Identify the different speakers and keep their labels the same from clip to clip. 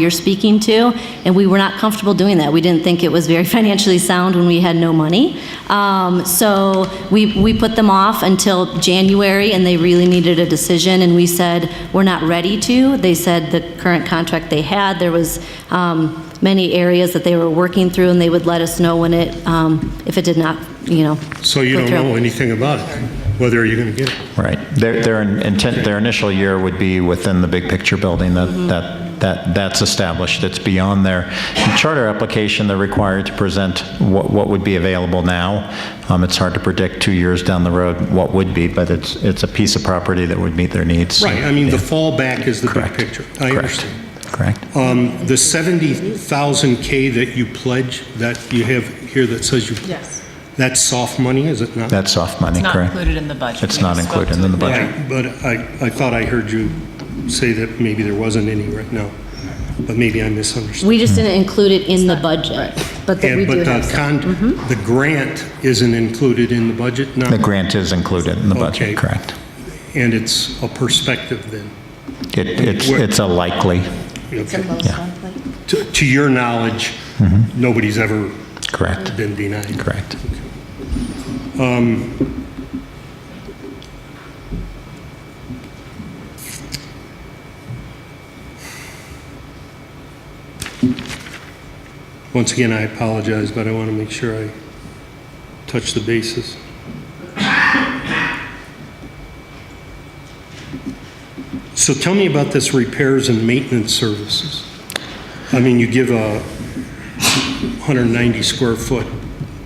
Speaker 1: you're speaking to, and we were not comfortable doing that. We didn't think it was very financially sound when we had no money. Um, So we, we put them off until January, and they really needed a decision, and we said, we're not ready to. They said the current contract they had, there was um, many areas that they were working through, and they would let us know when it, um, if it did not, you know.
Speaker 2: So you
Speaker 1: go
Speaker 2: don't
Speaker 1: through.
Speaker 2: know anything about it, whether you're going to get it.
Speaker 3: Right. Their, their intent, their initial year would be within the big picture building that,
Speaker 2: Mm-hmm.
Speaker 3: that, that, that's established. It's beyond their in charter application. They're required to present what, what would be available now. Um, it's hard to predict two years down the road what would be, but it's, it's a piece of property that would meet their needs.
Speaker 2: Right, I mean, the fallback is the big
Speaker 3: Correct.
Speaker 2: picture. I
Speaker 3: Correct.
Speaker 2: understand.
Speaker 3: Correct.
Speaker 2: Um, The 70,000 K that you pledge, that you have here that says you...
Speaker 4: Yes.
Speaker 2: That's soft money, is it not?
Speaker 3: That's soft money,
Speaker 4: It's not
Speaker 3: correct?
Speaker 4: included in the budget.
Speaker 3: It's
Speaker 4: We
Speaker 3: not
Speaker 4: just spoke
Speaker 3: included
Speaker 4: to
Speaker 3: in the
Speaker 4: it.
Speaker 3: budget.
Speaker 2: Right, but I, I thought I heard you say that maybe there wasn't any right now, but maybe I misunderstood.
Speaker 1: We just didn't include it in the budget, but that we
Speaker 2: And
Speaker 1: do
Speaker 2: But
Speaker 1: have
Speaker 2: the
Speaker 1: some. Mm-hmm.
Speaker 2: con, the grant isn't included in the budget now?
Speaker 3: The grant is included in the
Speaker 2: Okay.
Speaker 3: budget, correct?
Speaker 2: And it's a perspective then?
Speaker 3: It, it's,
Speaker 2: Where-
Speaker 3: it's a likely,
Speaker 2: Okay. To, to your knowledge, nobody's ever
Speaker 3: correct,
Speaker 2: been denied?
Speaker 3: correct.
Speaker 2: Once again, I apologize, but I want to make sure I touch the bases. So tell me about this repairs and maintenance services. I mean, you give a 190 square foot,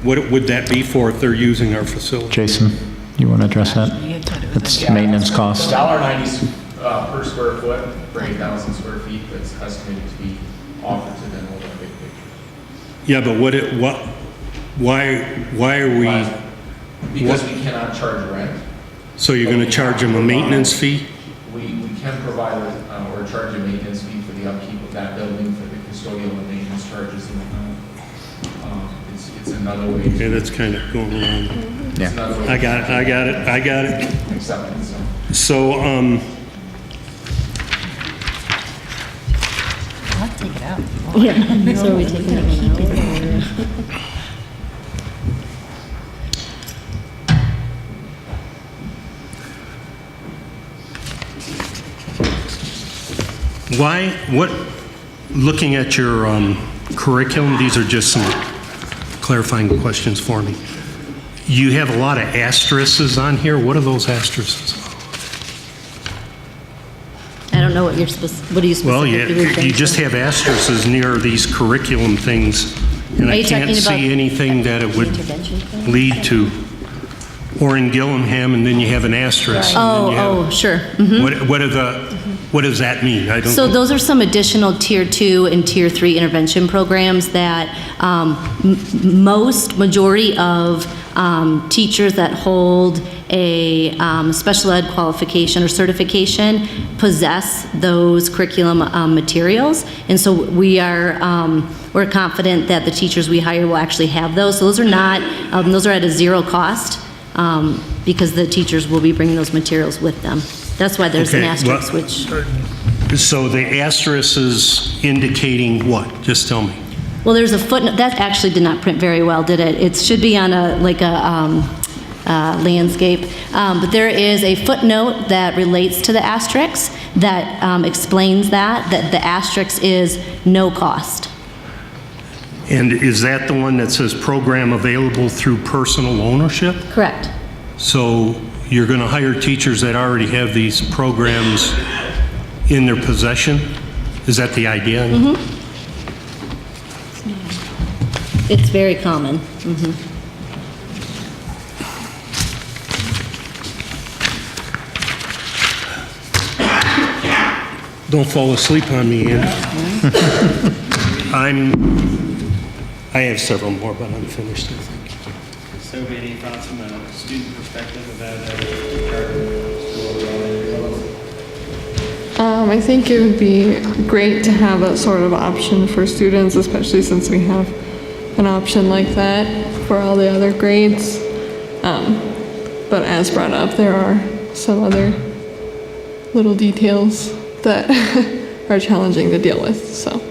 Speaker 2: what would that be for if they're using our facility?
Speaker 3: Jason, you want to address that?
Speaker 4: You had said it was in
Speaker 3: It's
Speaker 4: the-
Speaker 3: maintenance cost?
Speaker 5: Dollar ninety uh, per square foot for eight thousand square feet that's estimated to be offered to them over a big picture.
Speaker 2: Yeah, but what, it- what, why, why are we,
Speaker 5: Because we cannot charge rent,
Speaker 2: so you're going to charge them a maintenance fee?
Speaker 5: we, we can provide uh, or charge a maintenance fee for the upkeep of that building for the custodial and maintenance charges and whatnot. Um, It's, it's another way
Speaker 2: Yeah,
Speaker 5: to,
Speaker 2: that's kind of going around.
Speaker 5: it's another way
Speaker 2: I
Speaker 5: to
Speaker 2: got it, I got it, I got it.
Speaker 5: accept it, so.
Speaker 2: So, um,
Speaker 4: I'll take it out.
Speaker 2: why, what, looking at your um, curriculum, these are just some clarifying questions for me. You have a lot of asterisks on here. What are those asterisks?
Speaker 1: I don't know what you're, spec- what are you
Speaker 2: Well,
Speaker 1: specifically
Speaker 2: you,
Speaker 1: referring to?
Speaker 2: you just have asterisks near these curriculum things, and
Speaker 1: Are
Speaker 2: I
Speaker 1: you
Speaker 2: can't
Speaker 1: talking about-
Speaker 2: see anything that it would lead to. Or in Gillingham, and then you have an asterisk. and then you have-
Speaker 1: Oh, oh, sure. mhm.
Speaker 2: What, what are the, what does that mean? I don't.
Speaker 1: So those are some additional Tier 2 and Tier 3 intervention programs that um, m- m- most, majority of um, teachers that hold a um, special ed qualification or certification possess those curriculum um, materials. And so we are, um, we're confident that the teachers we hire will actually have those. So those are not, um, those are at a zero cost um, because the teachers will be bringing those materials with them. That's why there's an
Speaker 2: Okay, well-
Speaker 1: asterisk, which...
Speaker 2: So the asterisk is indicating what? Just tell me.
Speaker 1: Well, there's a footnote, that actually did not print very well, did it? It should be on a, like a um, uh, landscape. Um, But there is a footnote that relates to the asterisk that um, explains that, that the asterisk is no cost.
Speaker 2: And is that the one that says program available through personal ownership?
Speaker 1: Correct.
Speaker 2: So you're going to hire teachers that already have these programs in their possession? Is that the idea?
Speaker 1: It's very common.
Speaker 2: Don't fall asleep on me, Andy. I'm, I have several more, but I'm finished, I think.
Speaker 6: So many thoughts from a student perspective about a charter school elementary.
Speaker 7: Um, I think it would be great to have that sort of option for students, especially since we have an option like that for all the other grades. Um, but as brought up, there are some other little details that are challenging to deal with, so.